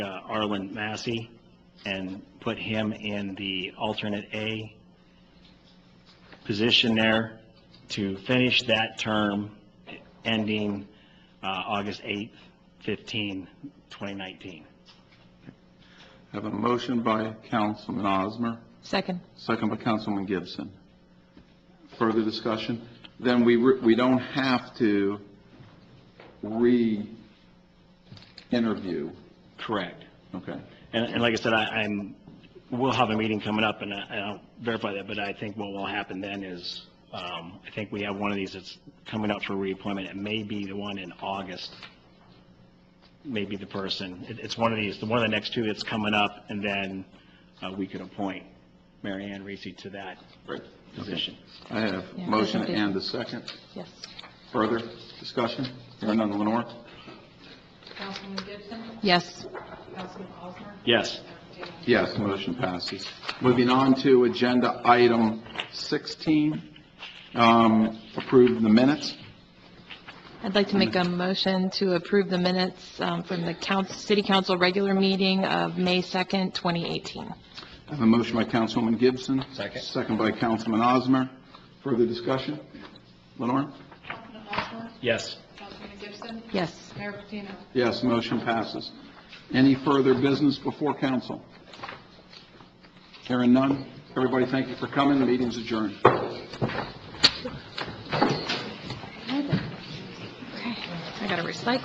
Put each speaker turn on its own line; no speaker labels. uh, Arlen Massey and put him in the alternate A position there to finish that term ending uh, August 8th, 15, 2019.
Have a motion by Councilman Osmer,
Second.
second by Councilman Gibson. Further discussion? Then we, re- we don't have to re-interview.
Correct.
Okay.
And, and like I said, I, I'm, we'll have a meeting coming up, and I, and I'll verify that, but I think what will happen then is, um, I think we have one of these that's coming up for reappointment, it may be the one in August, maybe the person, it, it's one of these, the one of the next two that's coming up, and then, uh, we could appoint Mary Ann Reese to that
Great.
position.
I have
Yeah,
motion
I think-
and a second.
Yes.
Further discussion? Hearing none, Lenore?
Councilman Gibson?
Yes.
Councilman Osmer?
Yes,
Yes, motion passes. Moving on to agenda item 16, um, approve the minutes.
I'd like to make a motion to approve the minutes um, from the council, city council regular meeting of May 2nd, 2018.
I have a motion by Councilwoman Gibson.
Second.
Second by Councilman Osmer. Further discussion? Lenore?
Councilman Osmer?
yes.
Councilman Gibson?
Yes.
Mayor Patino?
Yes, motion passes. Any further business before council? Hearing none. Everybody, thank you for coming. The Meeting's adjourned.
Okay, I got to recycle.